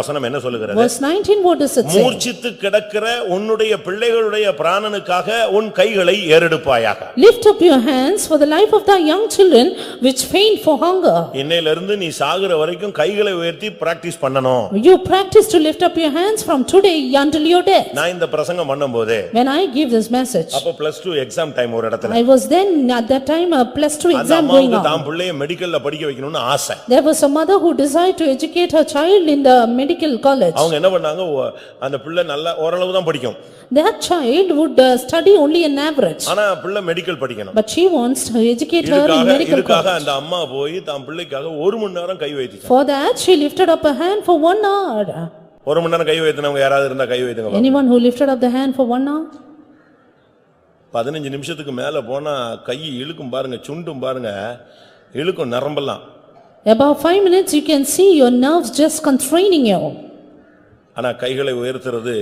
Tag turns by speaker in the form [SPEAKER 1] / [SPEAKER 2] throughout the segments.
[SPEAKER 1] வசனம் என்ன சொல்லுகிறது
[SPEAKER 2] Verse 19, what does it say?
[SPEAKER 1] மூர்ச்சித்து கிடக்கிற உன்னுடைய பிள்ளைகளுடைய பிராணனுக்காக உன் கைகளை ஏறெடுப்பாயாக
[SPEAKER 2] Lift up your hands for the life of thy young children which faint for hunger.
[SPEAKER 1] இன்னையிலிருந்து நீ சாகுற வரைக்கும் கைகளை உயர்த்தி பிராக்டிஸ் பண்ணணும்
[SPEAKER 2] You practice to lift up your hands from today until your death.
[SPEAKER 1] நான் இந்த பிரசங்கம் பண்ணும்போது
[SPEAKER 2] When I give this message,
[SPEAKER 1] அப்ப பிளஸ் டூ எக்ஸாம் டைம் ஒரு இடத்துல
[SPEAKER 2] I was then at that time a plus two
[SPEAKER 1] அந்த
[SPEAKER 2] exam going
[SPEAKER 1] அம்மாவுக்கு
[SPEAKER 2] on.
[SPEAKER 1] தான் பிள்ளைய மெடிக்கல்ல படிக்க வைக்கணும்னு ஆசை
[SPEAKER 2] There was a mother who desired to educate her child in the medical college.
[SPEAKER 1] அவங்க என்ன பண்ணாங்க ஒ- அந்த பிள்ளை நல்லா ஓரளவு தான் படிக்கும்
[SPEAKER 2] That child would uh, study only an average,
[SPEAKER 1] ஆனா பிள்ளை மெடிக்கல் படிக்கணும்
[SPEAKER 2] but she wants to educate her in
[SPEAKER 1] இதுக்காக
[SPEAKER 2] medical
[SPEAKER 1] இதுக்காக
[SPEAKER 2] college.
[SPEAKER 1] அந்த அம்மா போய் தான் பிள்ளைக்காக ஒரு மணி நேரம் கை வைத்துச்சு
[SPEAKER 2] For that, she lifted up her hand for one hour.
[SPEAKER 1] ஒரு மணி நேரம் கை வைத்தினவங்க யாராவது இருந்தா கை வைத்துங்க பாப்போம்.
[SPEAKER 2] Anyone who lifted up the hand for one hour?
[SPEAKER 1] பதினஞ்சு நிமிஷத்துக்கு மேல போனா கை இழுக்கும் பாருங்க சுண்டும் பாருங்க இழுக்கும் நரம்பெல்லாம்
[SPEAKER 2] About five minutes, you can see your nerves just constraining you.
[SPEAKER 1] ஆனா கைகளை உயர்த்துறது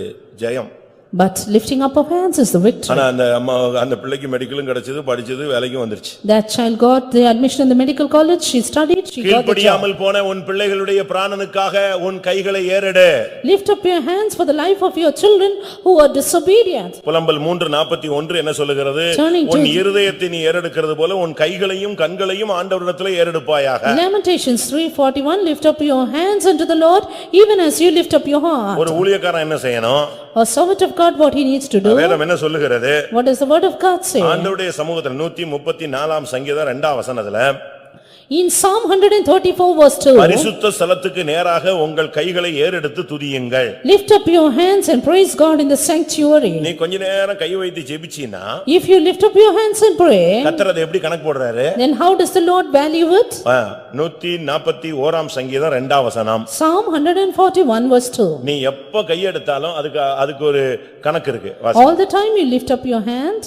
[SPEAKER 1] ஜெயம்
[SPEAKER 2] But lifting up of hands is the victory.
[SPEAKER 1] ஆனா அந்த அம்மா அந்த பிள்ளைக்கு மெடிக்கலும் கிடைச்சது படிச்சது வேலைக்கும் வந்துருச்சு
[SPEAKER 2] That child got the admission in the medical college, she studied, she got the job.
[SPEAKER 1] கீழ்ப்படியாமல் போன உன் பிள்ளைகளுடைய பிராணனுக்காக உன் கைகளை ஏறெடு
[SPEAKER 2] Lift up your hands for the life of your children who are disobedient.
[SPEAKER 1] புலம்பல் மூன்று நாற்பத்தி ஒன்று என்ன சொல்லுகிறது
[SPEAKER 2] Turning to-
[SPEAKER 1] உன் இருதயத்தை நீ ஏறெடுக்கிறது போல உன் கைகளையும் கண்களையும் ஆண்டவரிடத்துல ஏறெடுப்பாயாக
[SPEAKER 2] Lamentations 3:41, lift up your hands unto the Lord, even as you lift up your heart.
[SPEAKER 1] ஒரு ஊழியக்காரன் என்ன செய்யணும்
[SPEAKER 2] A servant of God, what he needs to do,
[SPEAKER 1] வேதம் என்ன சொல்லுகிறது
[SPEAKER 2] what does the word of God say?
[SPEAKER 1] ஆண்டவருடைய சமூகத்துல நூத்தி முப்பத்தி நாலாம் சங்கீதம் இரண்டாம் வசனத்துல
[SPEAKER 2] In Psalm 134 verse 2,
[SPEAKER 1] பரிசுத்த ஸ்தலத்துக்கு நேராக உங்கள் கைகளை ஏறெடுத்து துதியுங்கள்
[SPEAKER 2] lift up your hands and praise God in the sanctuary.
[SPEAKER 1] நீ கொஞ்ச நேரம் கை வைத்து ஜெபிச்சீன்னா
[SPEAKER 2] If you lift up your hands and pray,
[SPEAKER 1] கத்தர் அதை எப்படி கணக்கு போடுறாரு
[SPEAKER 2] then how does the Lord value it?
[SPEAKER 1] ஆ, நூத்தி நாற்பத்தி ஓராம் சங்கீதம் இரண்டாம் வசனம்
[SPEAKER 2] Psalm 141 verse 2,
[SPEAKER 1] நீ எப்ப கையெடுத்தாலும் அதுக்கு அதுக்கு ஒரு கணக்கு இருக்கு வாசி.
[SPEAKER 2] all the time you lift up your hand,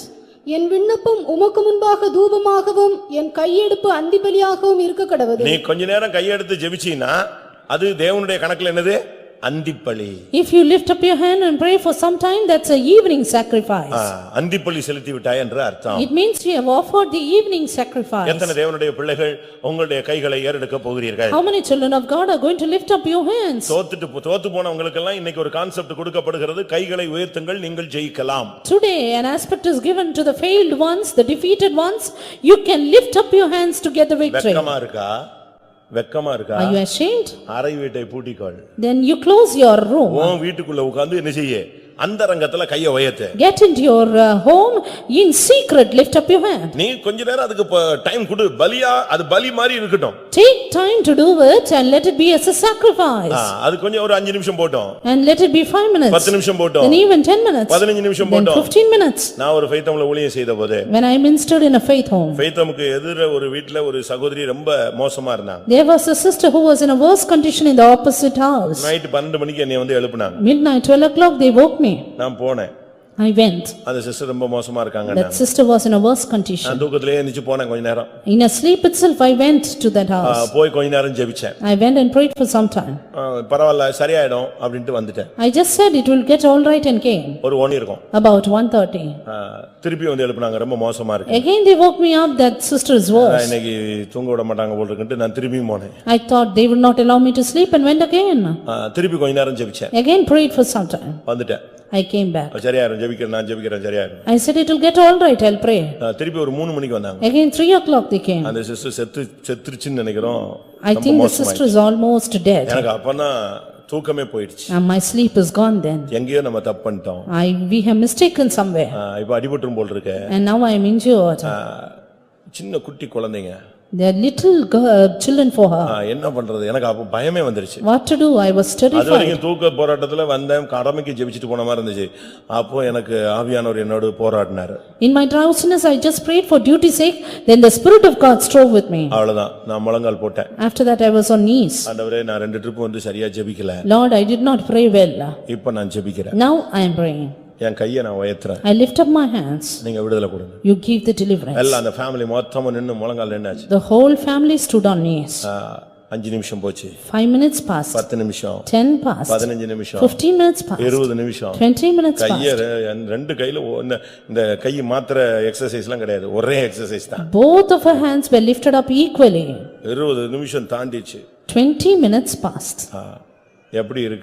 [SPEAKER 3] என் விண்ணப்பம் உமக்கு முன்பாக தூபமாகவும் என் கையெடுப்பு அந்திபலியாகவும் இருக்க கடவது
[SPEAKER 1] நீ கொஞ்ச நேரம் கையெடுத்து ஜெபிச்சீன்னா அது தேவனுடைய கணக்குல என்னது அந்திப்பலி
[SPEAKER 2] If you lift up your hand and pray for some time, that's a evening
[SPEAKER 1] ah,
[SPEAKER 2] sacrifice.
[SPEAKER 1] அந்திப்பலி செலுத்தி விட்டாய் என்று அர்த்தம்
[SPEAKER 2] It means you have offered the evening sacrifice.
[SPEAKER 1] எத்தனை தேவனுடைய பிள்ளைகள் உங்களுடைய கைகளை ஏறெடுக்க போகிறீர்கள்
[SPEAKER 2] How many children of God are going to lift up your hands?
[SPEAKER 1] தோத்துட்டு போ- தோத்து போனவங்களுக்கெல்லாம் இன்னைக்கு ஒரு கான்செப்ட் கொடுக்கப்படுகிறது கைகளை உயர்த்துங்கள் நீங்கள் ஜெயிக்கலாம்
[SPEAKER 2] Today, an aspect is given to the failed ones, the defeated ones. You can lift up your hands to get the victory.
[SPEAKER 1] வெக்கமா இருக்கா வெக்கமா இருக்கா
[SPEAKER 2] Are you ashamed?
[SPEAKER 1] அறை வீட்டை பூட்டிக்கொள்
[SPEAKER 2] Then you close your room.
[SPEAKER 1] உன் வீட்டுக்குள்ள உட்கார்ந்து என்ன செய்ய அந்த ரங்கத்துல கைய உயர்த்து
[SPEAKER 2] Get into your uh, home, in secret, lift up your hand.
[SPEAKER 1] நீ கொஞ்ச நேரம் அதுக்கு டைம் கொடு பலியா அது பலி மாதிரி இருக்கட்டும்
[SPEAKER 2] Take time to do it and let it be as a
[SPEAKER 1] ah,
[SPEAKER 2] sacrifice.
[SPEAKER 1] அது கொஞ்சம் ஒரு அஞ்சு நிமிஷம் போட்டோம்
[SPEAKER 2] And let it be five minutes,
[SPEAKER 1] பத்து நிமிஷம்
[SPEAKER 2] then
[SPEAKER 1] போட்டோம்
[SPEAKER 2] even ten minutes,
[SPEAKER 1] பதினஞ்சு நிமிஷம்
[SPEAKER 2] then
[SPEAKER 1] போட்டோம்
[SPEAKER 2] fifteen minutes.
[SPEAKER 1] நான் ஒரு ஃபைத்தம்ல ஊழியம் செய்த போது
[SPEAKER 2] When I ministered in a faith home,
[SPEAKER 1] ஃபைத்தமுக்கு எதிர ஒரு வீட்டுல ஒரு சகோதரி ரொம்ப மோசமா இருந்தாங்க
[SPEAKER 2] there was a sister who was in a worse condition in the opposite house.
[SPEAKER 1] Night பன்னெண்டு மணிக்கு என்னை வந்து எழுப்புனாங்க
[SPEAKER 2] Midnight, twelve o'clock, they woke me.
[SPEAKER 1] நான் போனேன்
[SPEAKER 2] I went.
[SPEAKER 1] அந்த சிஸ்டர் ரொம்ப மோசமா இருக்காங்க
[SPEAKER 2] That sister was in a worse condition.
[SPEAKER 1] நான் தூக்கத்திலே எந்திரிச்சு போனேன் கொஞ்ச நேரம்
[SPEAKER 2] In a sleep itself, I went to that
[SPEAKER 1] ah,
[SPEAKER 2] house.
[SPEAKER 1] போய் கொஞ்ச நேரம் ஜெபிச்சேன்
[SPEAKER 2] I went and prayed for some time.
[SPEAKER 1] ஆ, பரவாயில்ல சரியாயிடும் அப்படின்ட்டு வந்துட்டேன்
[SPEAKER 2] I just said it will get all right and came.
[SPEAKER 1] ஒரு ஒன் இருக்கும்
[SPEAKER 2] About one thirty.
[SPEAKER 1] ஆ, திருப்பி வந்து எழுப்புனாங்க ரொம்ப மோசமா இருக்கு
[SPEAKER 2] Again, they woke me up that sister is worse.
[SPEAKER 1] நான் இன்னைக்கு தூங்க விட மாட்டாங்க போல் இருக்குன்ட்டு நான் திரும்பியும் போனேன்
[SPEAKER 2] I thought they would not allow me to sleep and went again.
[SPEAKER 1] ஆ, திருப்பி கொஞ்ச நேரம் ஜெபிச்சேன்
[SPEAKER 2] Again prayed for some time.
[SPEAKER 1] வந்துட்டேன்
[SPEAKER 2] I came back.
[SPEAKER 1] அது சரியாயிரும் ஜெபிக்கிறேன் நான் ஜெபிக்கிறேன் சரியாயிரும்
[SPEAKER 2] I said it will get all right, I'll pray.
[SPEAKER 1] ஆ, திருப்பி ஒரு மூணு மணிக்கு வந்தாங்க
[SPEAKER 2] Again, three o'clock they came.
[SPEAKER 1] அந்த சிஸ்டர் செத்து செத்துருச்சுன்னு நினைக்கிறோம்
[SPEAKER 2] I
[SPEAKER 1] ரொம்ப
[SPEAKER 2] think the
[SPEAKER 1] மோசமாயி-
[SPEAKER 2] sister is almost dead
[SPEAKER 1] எனக்கு அப்பதான் தூக்கமே போயிடுச்சு
[SPEAKER 2] and my sleep is gone then.
[SPEAKER 1] எங்கேயோ நம்ம தப்பு பண்ணிட்டோம்
[SPEAKER 2] I, we have mistaken
[SPEAKER 1] ah,
[SPEAKER 2] somewhere
[SPEAKER 1] இப்ப அடிபட்டுரும் போல் இருக்கு
[SPEAKER 2] and now I am injured.
[SPEAKER 1] ஆ, சின்ன குட்டி குழந்தைங்க
[SPEAKER 2] They are little girl- children for
[SPEAKER 1] ah,
[SPEAKER 2] her.
[SPEAKER 1] என்ன பண்றது எனக்கு அப்ப பயமே வந்துருச்சு
[SPEAKER 2] What to do? I was
[SPEAKER 1] அது
[SPEAKER 2] terrified.
[SPEAKER 1] வரைக்கும் தூக்க போராட்டத்துல வந்தேன் கடமைக்கு ஜெபிச்சிட்டு போன மாதிரி இருந்துச்சு அப்போ எனக்கு ஆவியானவர் என்னோட போராடினாரு
[SPEAKER 2] In my drowsiness, I just prayed for duty's sake, then the spirit of God strove with me.
[SPEAKER 1] அவ்வளவுதான் நான் முழங்கால் போட்டேன்
[SPEAKER 2] After that, I was on knees.
[SPEAKER 1] ஆண்டவரே நான் ரெண்டு ட்ரிப் வந்து சரியா ஜெபிக்கல
[SPEAKER 2] Lord, I did not pray well.
[SPEAKER 1] இப்ப நான் ஜெபிக்கிறேன்
[SPEAKER 2] Now I am praying.
[SPEAKER 1] என் கையை நான் உயர்த்துறேன்
[SPEAKER 2] I lift up my hands.
[SPEAKER 1] நீங்க விடுதலை கொடுங்க
[SPEAKER 2] You give the deliverance.
[SPEAKER 1] எல்லாம் அந்த ஃபேமிலி மொத்தமும் நின்னு முழங்கால் நின்னாச்சு
[SPEAKER 2] The whole family stood on knees.
[SPEAKER 1] ஆ, அஞ்சு நிமிஷம் போச்சு
[SPEAKER 2] Five minutes passed,
[SPEAKER 1] பத்து நிமிஷம்
[SPEAKER 2] ten passed,
[SPEAKER 1] பதினஞ்சு நிமிஷம்
[SPEAKER 2] fifteen minutes passed,
[SPEAKER 1] இருபது நிமிஷம்
[SPEAKER 2] twenty minutes passed.
[SPEAKER 1] கைய ரெ- என் ரெண்டு கையில ஒண்ணு- இந்த கை மாத்திர எக்ஸசைஸ் எல்லாம் கிடையாது ஒரே எக்ஸசைஸ் தான்
[SPEAKER 2] Both of her hands were lifted up equally.
[SPEAKER 1] இருபது நிமிஷம் தாண்டிச்சு
[SPEAKER 2] Twenty minutes passed.
[SPEAKER 1] ஆ, எப்படி இருக்கு